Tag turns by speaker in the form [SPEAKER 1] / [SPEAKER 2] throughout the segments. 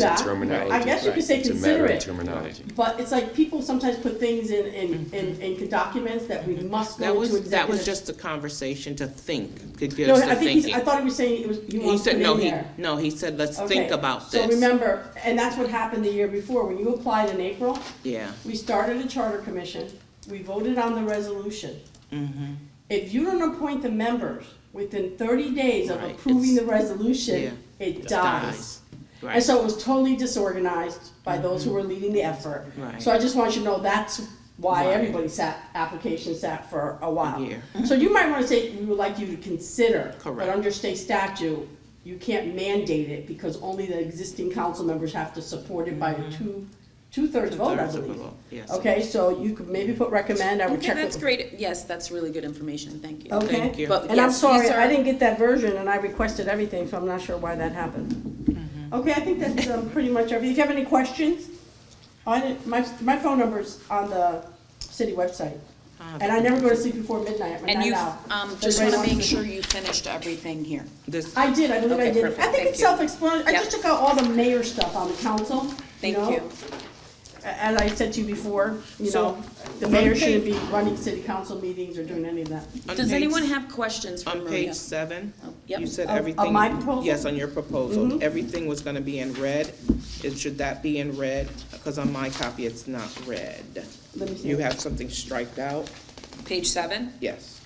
[SPEAKER 1] that.
[SPEAKER 2] terminology.
[SPEAKER 1] I guess you could say
[SPEAKER 2] It's a
[SPEAKER 1] consider
[SPEAKER 2] matter of
[SPEAKER 1] it.
[SPEAKER 2] terminology.
[SPEAKER 1] But it's like people sometimes put things in, in, in, in documents that we must
[SPEAKER 3] Mm-hmm. That
[SPEAKER 1] go into
[SPEAKER 3] was,
[SPEAKER 1] executive.
[SPEAKER 3] that was just a conversation to think, to get
[SPEAKER 1] No,
[SPEAKER 3] us to
[SPEAKER 1] I think he's,
[SPEAKER 3] thinking.
[SPEAKER 1] I thought he was saying it was, you
[SPEAKER 3] He
[SPEAKER 1] want to put
[SPEAKER 3] said,
[SPEAKER 1] it
[SPEAKER 3] no,
[SPEAKER 1] in
[SPEAKER 3] he,
[SPEAKER 1] there.
[SPEAKER 3] no, he said, let's
[SPEAKER 1] Okay,
[SPEAKER 3] think about
[SPEAKER 1] So
[SPEAKER 3] this.
[SPEAKER 1] remember, and that's what happened the year before, when you applied in April,
[SPEAKER 3] Yeah,
[SPEAKER 1] we started a charter commission, we voted on the resolution.
[SPEAKER 3] mhm,
[SPEAKER 1] If you don't appoint the members within thirty days of
[SPEAKER 3] Right,
[SPEAKER 1] approving
[SPEAKER 3] it's-
[SPEAKER 1] the resolution,
[SPEAKER 3] yeah,
[SPEAKER 1] it
[SPEAKER 3] dies.
[SPEAKER 1] dies. And
[SPEAKER 3] right.
[SPEAKER 1] so it was totally disorganized by those who were leading the effort.
[SPEAKER 3] Mm-hmm. Right.
[SPEAKER 1] So I just want you to know that's why
[SPEAKER 3] Right.
[SPEAKER 1] everybody sat, application sat for a while.
[SPEAKER 3] year.
[SPEAKER 1] So you might wanna say, we would like you to consider. But
[SPEAKER 3] Correct.
[SPEAKER 1] under state statute, you can't mandate it because only the existing council members have to support it by a two, two-thirds vote, I
[SPEAKER 3] Mm-hmm. Two-thirds of the
[SPEAKER 1] believe.
[SPEAKER 3] vote, yes.
[SPEAKER 1] Okay, so you could maybe put recommend, I would
[SPEAKER 4] Okay,
[SPEAKER 1] check
[SPEAKER 4] that's
[SPEAKER 1] with.
[SPEAKER 4] great. Yes, that's really good information. Thank you.
[SPEAKER 1] Okay.
[SPEAKER 3] Thank you.
[SPEAKER 4] But
[SPEAKER 1] And I'm
[SPEAKER 4] yes,
[SPEAKER 1] sorry,
[SPEAKER 4] these are-
[SPEAKER 1] I didn't get that version and I requested everything, so I'm not sure why that happened.
[SPEAKER 4] Mm-hmm.
[SPEAKER 1] Okay, I think that's um, pretty much everything. If you have any questions, I didn't, my, my phone number's on the city website.
[SPEAKER 3] Ah,
[SPEAKER 1] And I never go to sleep before midnight, I'm
[SPEAKER 4] And
[SPEAKER 1] not
[SPEAKER 4] you,
[SPEAKER 1] out.
[SPEAKER 4] um,
[SPEAKER 1] Does
[SPEAKER 4] just
[SPEAKER 1] anybody
[SPEAKER 4] wanna make
[SPEAKER 1] want to-
[SPEAKER 4] sure you finished everything here.
[SPEAKER 3] This,
[SPEAKER 1] I did, I believe I
[SPEAKER 4] Okay,
[SPEAKER 1] did.
[SPEAKER 4] perfect.
[SPEAKER 1] I think
[SPEAKER 4] Thank
[SPEAKER 1] it's
[SPEAKER 4] you.
[SPEAKER 1] self-explanatory. I just
[SPEAKER 4] Yep.
[SPEAKER 1] took out all the mayor stuff on the council, you
[SPEAKER 4] Thank
[SPEAKER 1] know?
[SPEAKER 4] you.
[SPEAKER 1] A- As I said to you before, you
[SPEAKER 3] So,
[SPEAKER 1] know, the mayor
[SPEAKER 3] okay.
[SPEAKER 1] shouldn't be running city council meetings or doing any of that.
[SPEAKER 3] on
[SPEAKER 4] Does
[SPEAKER 3] page-
[SPEAKER 4] anyone have questions for
[SPEAKER 3] On
[SPEAKER 4] Maria?
[SPEAKER 3] page seven,
[SPEAKER 4] Oh, yep.
[SPEAKER 3] you said
[SPEAKER 1] Of- of
[SPEAKER 3] everything.
[SPEAKER 1] my proposal?
[SPEAKER 3] Yes, on your proposal. Everything was gonna be in red. It- Should that be in red? Because on my copy, it's not red.
[SPEAKER 1] Let me see.
[SPEAKER 3] You have something striked out?
[SPEAKER 4] Page seven?
[SPEAKER 3] Yes.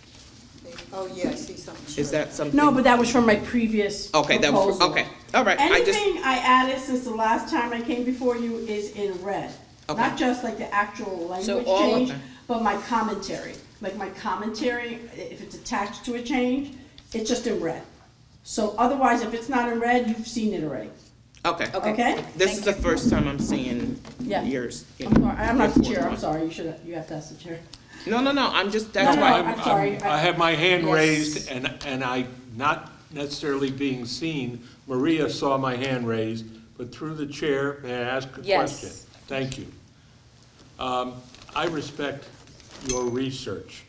[SPEAKER 5] Oh, yeah, I see something.
[SPEAKER 3] Is that something?
[SPEAKER 1] No, but that was from my previous
[SPEAKER 3] Okay, that was,
[SPEAKER 1] proposal.
[SPEAKER 3] okay, all right. I just,
[SPEAKER 1] Anything I added since the last time I came before you is in red. Not
[SPEAKER 3] Okay.
[SPEAKER 1] just like the actual language
[SPEAKER 4] all-
[SPEAKER 1] change,
[SPEAKER 3] Okay.
[SPEAKER 1] but my commentary. Like my commentary, i- if it's attached to a change, it's just in red. So otherwise, if it's not in red, you've seen it already,
[SPEAKER 3] okay.
[SPEAKER 4] Okay.
[SPEAKER 1] okay?
[SPEAKER 3] This is the first time I'm seeing
[SPEAKER 1] Yeah.
[SPEAKER 3] yours.
[SPEAKER 1] I'm sorry, I'm not the
[SPEAKER 3] Yours
[SPEAKER 1] chair, I'm
[SPEAKER 3] one.
[SPEAKER 1] sorry, you should, you have to ask the chair.
[SPEAKER 3] No, no, no, I'm just,
[SPEAKER 1] No,
[SPEAKER 3] that's
[SPEAKER 1] no,
[SPEAKER 3] why.
[SPEAKER 1] I'm sorry.
[SPEAKER 6] I have my hand
[SPEAKER 1] Yes.
[SPEAKER 6] raised, and, and I, not necessarily being seen, Maria saw my hand raised, but through the chair, may I ask a
[SPEAKER 4] Yes.
[SPEAKER 6] question? Thank you. Um, I respect your research.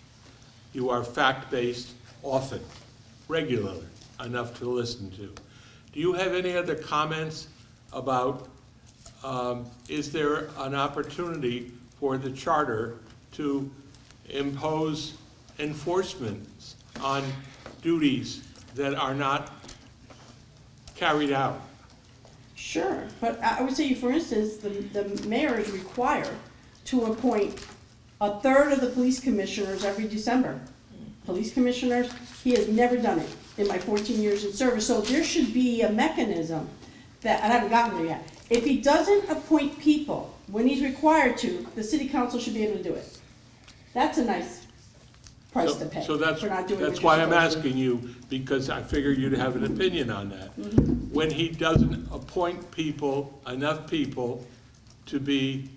[SPEAKER 6] You are fact-based often, regularly, enough to listen to. Do you have any other comments about, um, is there an opportunity for the charter to impose enforcements on duties that are not carried out?
[SPEAKER 1] Sure, but I I would say, for instance, the, the mayor is required to appoint a third of the police commissioners every December. Police commissioners, he has never done it in my fourteen years in service, so there should be a mechanism that, and I haven't gotten there yet. If he doesn't appoint people when he's required to, the city council should be able to do it. That's a nice price to pay
[SPEAKER 6] So that's,
[SPEAKER 1] for not doing what
[SPEAKER 6] that's
[SPEAKER 1] you're
[SPEAKER 6] why I'm
[SPEAKER 1] supposed to.
[SPEAKER 6] asking you, because I figure you'd have an opinion on that.
[SPEAKER 1] Mm-hmm.
[SPEAKER 6] When he doesn't appoint people, enough people, to be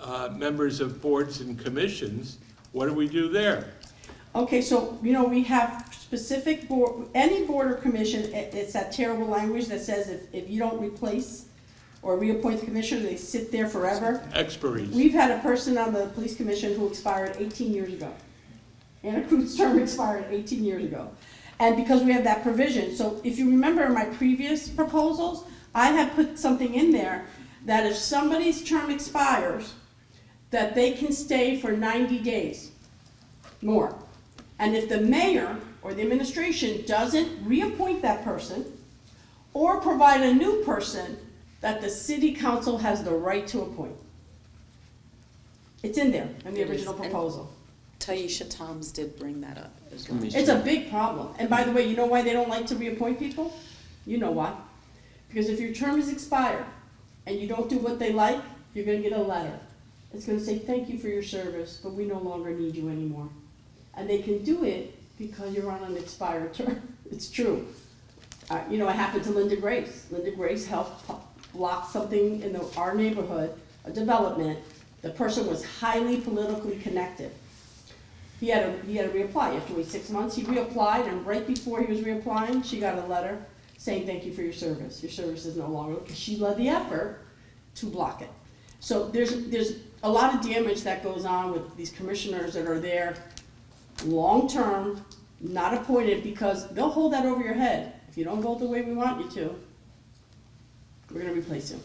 [SPEAKER 6] uh, members of boards and commissions, what do we do there?
[SPEAKER 1] Okay, so, you know, we have specific board, any board or commission, it, it's that terrible language that says if, if you don't replace or reappoint the commissioner, they sit there forever.
[SPEAKER 6] Expiries.
[SPEAKER 1] We've had a person on the police commission who expired eighteen years ago. Anna Cruz's term expired eighteen years ago. And because we have that provision, so if you remember in my previous proposals, I had put something in there that if somebody's term expires, that they can stay for ninety days more. And if the mayor or the administration doesn't reappoint that person or provide a new person, that the city council has the right to appoint. It's in there, in the
[SPEAKER 4] It is,
[SPEAKER 1] original
[SPEAKER 4] and-
[SPEAKER 1] proposal.
[SPEAKER 4] Taisha Toms did bring that up as well.
[SPEAKER 1] It's a big problem. And by the way, you know why they don't like to reappoint people? You know why. Because if your term is expired and you don't do what they like, you're gonna get a letter. It's gonna say, thank you for your service, but we no longer need you anymore. And they can do it because you're on an expired term. It's true. Uh, you know, it happened to Linda Grace. Linda Grace helped po- block something in the, our neighborhood, a development. The person was highly politically connected. He had to, he had to reapply, you have to wait six months, he reapplied, and right before he was reapplying, she got a letter saying, thank you for your service, your service is no longer, because she led the effort to block it. So there's, there's a lot of damage that goes on with these commissioners that are there long-term, not appointed, because they'll hold that over your head. If you don't vote the way we want you to, we're gonna replace you.